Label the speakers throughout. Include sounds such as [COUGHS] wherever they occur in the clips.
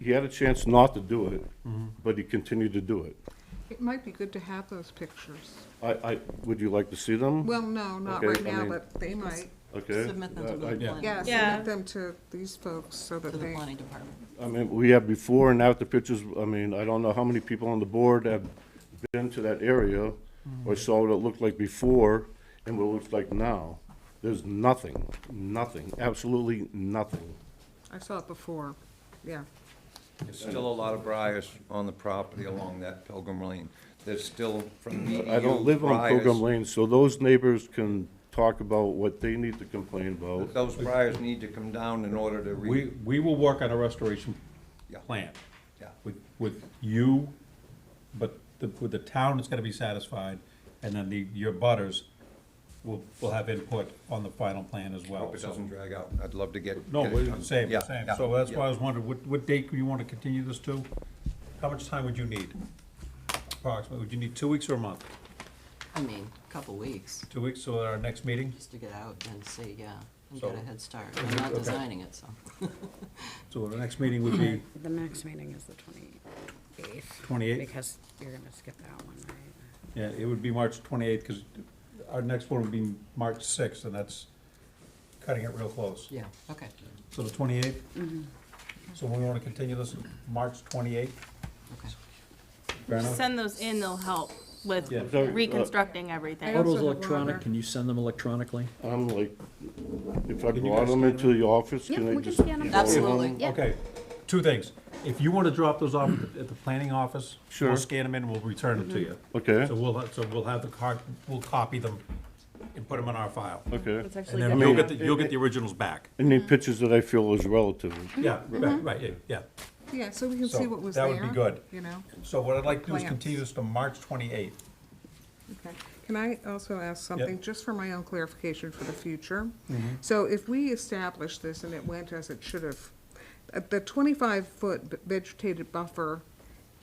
Speaker 1: he had a chance not to do it, but he continued to do it.
Speaker 2: It might be good to have those pictures.
Speaker 1: I, I, would you like to see them?
Speaker 2: Well, no, not
Speaker 1: Okay,
Speaker 2: right
Speaker 1: I
Speaker 2: now,
Speaker 1: mean-
Speaker 2: but they might.
Speaker 1: Okay.
Speaker 3: Submit them to
Speaker 1: Uh, I- I-
Speaker 3: the planning,
Speaker 2: Yeah,
Speaker 4: Yeah.
Speaker 2: submit them to these folks so
Speaker 3: to
Speaker 2: that
Speaker 3: the
Speaker 2: they,
Speaker 3: planning department.
Speaker 1: I mean, we have before and after pictures, I mean, I don't know how many people on the board have been to that area or saw what it looked like before and what it looks like now. There's nothing, nothing, absolutely nothing.
Speaker 2: I saw it before, yeah.
Speaker 5: There's still a lot of briars on the property along that Pilgrim Lane. There's still from BDU
Speaker 1: I don't live on Program
Speaker 5: briars.
Speaker 1: Lane, so those neighbors can talk about what they need to complain about.
Speaker 5: Those briars need to come down in order to
Speaker 6: We,
Speaker 5: re,
Speaker 6: we will work on a restoration
Speaker 5: Yeah.
Speaker 6: plan.
Speaker 5: Yeah.
Speaker 6: With, with you, but the, with the town is gonna be satisfied, and then the, your butters will, will have input on the final plan as well.
Speaker 5: hope it
Speaker 6: so-
Speaker 5: doesn't drag out. I'd love to get.
Speaker 6: No,
Speaker 5: get it
Speaker 6: we're
Speaker 5: done.
Speaker 6: same,
Speaker 5: Yeah,
Speaker 6: same,
Speaker 5: yeah,
Speaker 6: so that's why I
Speaker 5: yeah.
Speaker 6: was wondering, what, what date do you wanna continue this to? How much time would you need? Approximately, would you need two weeks or a month?
Speaker 3: I mean, a couple weeks,
Speaker 6: Two weeks, so at our next meeting,
Speaker 3: just to get out and see, yeah, and
Speaker 6: So-
Speaker 3: get a head start. I'm not
Speaker 6: Okay.
Speaker 3: designing it, so.
Speaker 6: so our next meeting would be,
Speaker 4: The next meeting is the twenty-eighth.
Speaker 6: 28th?
Speaker 4: Because you're gonna skip that one, right?
Speaker 6: yeah, it would be March twenty-eighth, cause our next one would be March sixth, and that's cutting it real close.
Speaker 3: Yeah, okay.
Speaker 6: So the twenty-eighth? So we wanna continue this, March twenty-eighth?
Speaker 3: Okay.
Speaker 6: Fair enough?
Speaker 7: Send those in, they'll help with
Speaker 6: Yeah.
Speaker 1: Sorry, uh,
Speaker 7: reconstructing everything.
Speaker 2: I
Speaker 8: Photos
Speaker 2: also have one
Speaker 8: electronic,
Speaker 2: other-
Speaker 8: can you send them electronically?
Speaker 1: I'm like, if I
Speaker 6: Can you
Speaker 1: brought
Speaker 6: guys
Speaker 1: them
Speaker 6: scan
Speaker 1: into the office,
Speaker 9: Yep,
Speaker 1: can I
Speaker 9: we can
Speaker 1: just?
Speaker 9: scan 'em.
Speaker 1: email
Speaker 3: Absolutely.
Speaker 9: Yeah.
Speaker 6: Okay, two things. If you wanna drop those off at the- at the planning office,
Speaker 1: Sure.
Speaker 6: we'll scan them in, we'll return them to you.
Speaker 1: Okay.
Speaker 6: So we'll, ha- so we'll have the card, we'll copy them and put them in our file.
Speaker 1: Okay.
Speaker 7: It's
Speaker 6: And
Speaker 7: actually
Speaker 6: then
Speaker 7: good.
Speaker 6: you'll get, the- you'll get the originals back.
Speaker 1: I need pictures that I feel is relative.
Speaker 6: Yeah, right, right, yeah, yeah.
Speaker 2: Yeah, so we can
Speaker 6: So
Speaker 2: see what was there.
Speaker 6: that would be good.
Speaker 2: You know,
Speaker 6: So what I'd like to do is
Speaker 2: Plans.
Speaker 6: continue this to March twenty-eighth.
Speaker 2: okay. Can I also ask something,
Speaker 6: Yep. Mm-hmm.
Speaker 2: just for my own clarification for the future? So if we establish this and it went as it should have, uh, the twenty-five foot vegetated buffer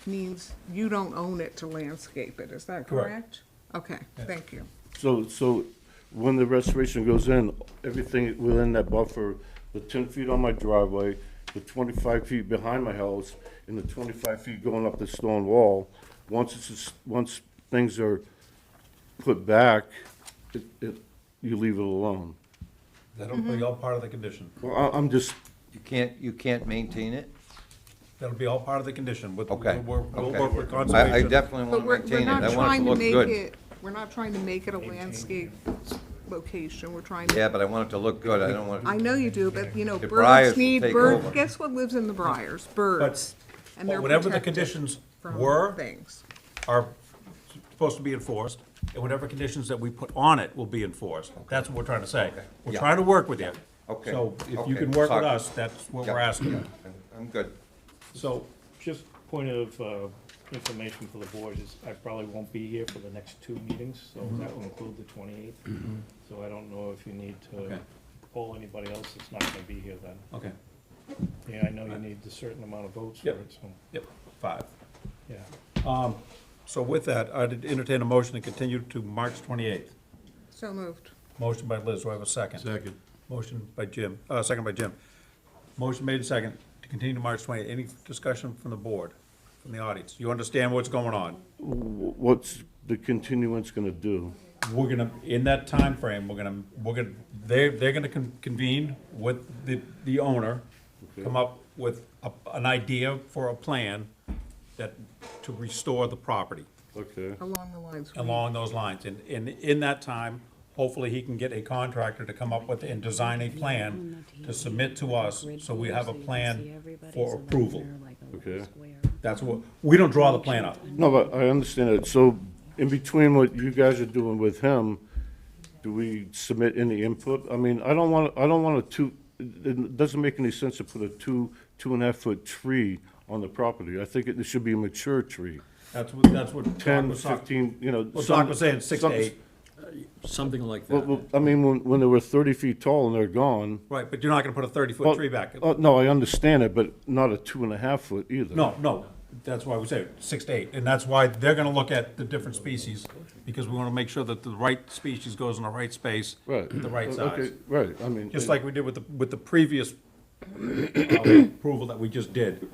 Speaker 2: means you don't own it to landscape it, is that correct?
Speaker 6: Correct.
Speaker 2: Okay, thank you.
Speaker 1: So, so when the restoration goes in, everything within that buffer, the ten feet on my driveway, the twenty-five feet behind my house, and the twenty-five feet going up the stone wall, once it's, just- once things are put back, it, it, you leave it alone.
Speaker 6: That'll
Speaker 2: Mm-hmm.
Speaker 6: be all part of the condition.
Speaker 1: Well, I, I'm just,
Speaker 5: You can't, you can't maintain it?
Speaker 6: That'll be all part of the condition. We'll-
Speaker 5: Okay.
Speaker 6: We'll, we'll
Speaker 5: okay.
Speaker 6: work with
Speaker 5: I- I
Speaker 6: conservation.
Speaker 5: definitely
Speaker 2: But
Speaker 5: want
Speaker 2: we're,
Speaker 5: to
Speaker 2: we're
Speaker 5: maintain it.
Speaker 2: not
Speaker 5: I want it
Speaker 2: trying
Speaker 5: to
Speaker 2: to
Speaker 5: look
Speaker 2: make
Speaker 5: good.
Speaker 2: it, we're not trying to make it a landscape location, we're trying to.
Speaker 5: Yeah, but I want it to look good. I don't want
Speaker 2: I
Speaker 5: it,
Speaker 2: know you do, but you know,
Speaker 5: The briars
Speaker 2: birds
Speaker 5: will
Speaker 2: need,
Speaker 5: take
Speaker 2: birds,
Speaker 5: over.
Speaker 2: guess what lives in the briars? Birds. And
Speaker 6: But
Speaker 2: they're
Speaker 6: whatever the
Speaker 2: protected
Speaker 6: conditions
Speaker 2: from
Speaker 6: were,
Speaker 2: Things.
Speaker 6: are supposed to be enforced, and whatever conditions that we put on it will be enforced. That's what we're trying to say. We're
Speaker 5: Yeah.
Speaker 6: trying to work with you.
Speaker 5: Okay.
Speaker 6: So if you
Speaker 5: Okay.
Speaker 6: can work with
Speaker 5: Sorry.
Speaker 6: us, that's what we're
Speaker 5: Yeah.
Speaker 6: asking.
Speaker 5: I'm good.
Speaker 6: So,
Speaker 10: Just point of uh, information for the board is I probably won't be here for the next two meetings, so
Speaker 8: Mm-hmm.
Speaker 10: that will include the twenty-eighth. So I don't know if you need to
Speaker 6: Okay.
Speaker 10: poll anybody else that's not gonna be here then.
Speaker 6: okay,
Speaker 10: Yeah, I know
Speaker 8: Uh,
Speaker 10: you need a certain amount of votes for
Speaker 6: Yep.
Speaker 10: it, so,
Speaker 6: yep, five.
Speaker 10: yeah.
Speaker 6: So with that, I'd entertain a motion to continue to March twenty-eighth.
Speaker 2: So moved.
Speaker 6: Motion by Liz, do I have a second? Second. Motion by Jim, uh, second by Jim. Motion made and second to continue to March twenty-eighth. Any discussion from the board, from the audience? You understand what's going on?
Speaker 1: wh- what's the continuance gonna do?
Speaker 6: we're gonna, in that time frame, we're gonna, we're gonna, they're, they're gonna con- convene with the, the owner, come up with a, an idea for a plan that, to restore the property
Speaker 1: Okay,
Speaker 2: Along the lines. we-
Speaker 6: along those lines. And, and in that time, hopefully he can get a contractor to come up with and design a plan to submit to us, so we have a plan for approval.
Speaker 1: okay.
Speaker 6: That's what, we don't draw the plan up.
Speaker 1: No, but I understand it. So in between what you guys are doing with him, do we submit any input? I mean, I don't want, I don't want a two, it- it doesn't make any sense to put a two, two and a half foot tree on the property. I think it should be a mature tree,
Speaker 6: That's what, that's what Doc
Speaker 1: ten,
Speaker 6: was talking.
Speaker 1: fifteen, you know.
Speaker 6: Well,
Speaker 1: some-
Speaker 6: Doc was saying six
Speaker 1: some-
Speaker 6: to eight.
Speaker 8: Something like
Speaker 1: Well,
Speaker 8: that.
Speaker 1: well, I mean, when, when they were thirty feet tall and they're gone.
Speaker 6: Right, but you're not gonna put a
Speaker 1: well,
Speaker 6: thirty-foot tree back.
Speaker 1: oh, No, I understand it, but not a two and a half foot either.
Speaker 6: No, no, that's why we say six to eight, and that's why they're gonna look at the different species, because we wanna make sure that the right species goes in the right space,
Speaker 1: Right.
Speaker 6: the right
Speaker 1: Okay,
Speaker 6: size.
Speaker 1: Right, I mean. [COUGHS]
Speaker 6: Just like we did with the, with the previous uh, approval that we just did.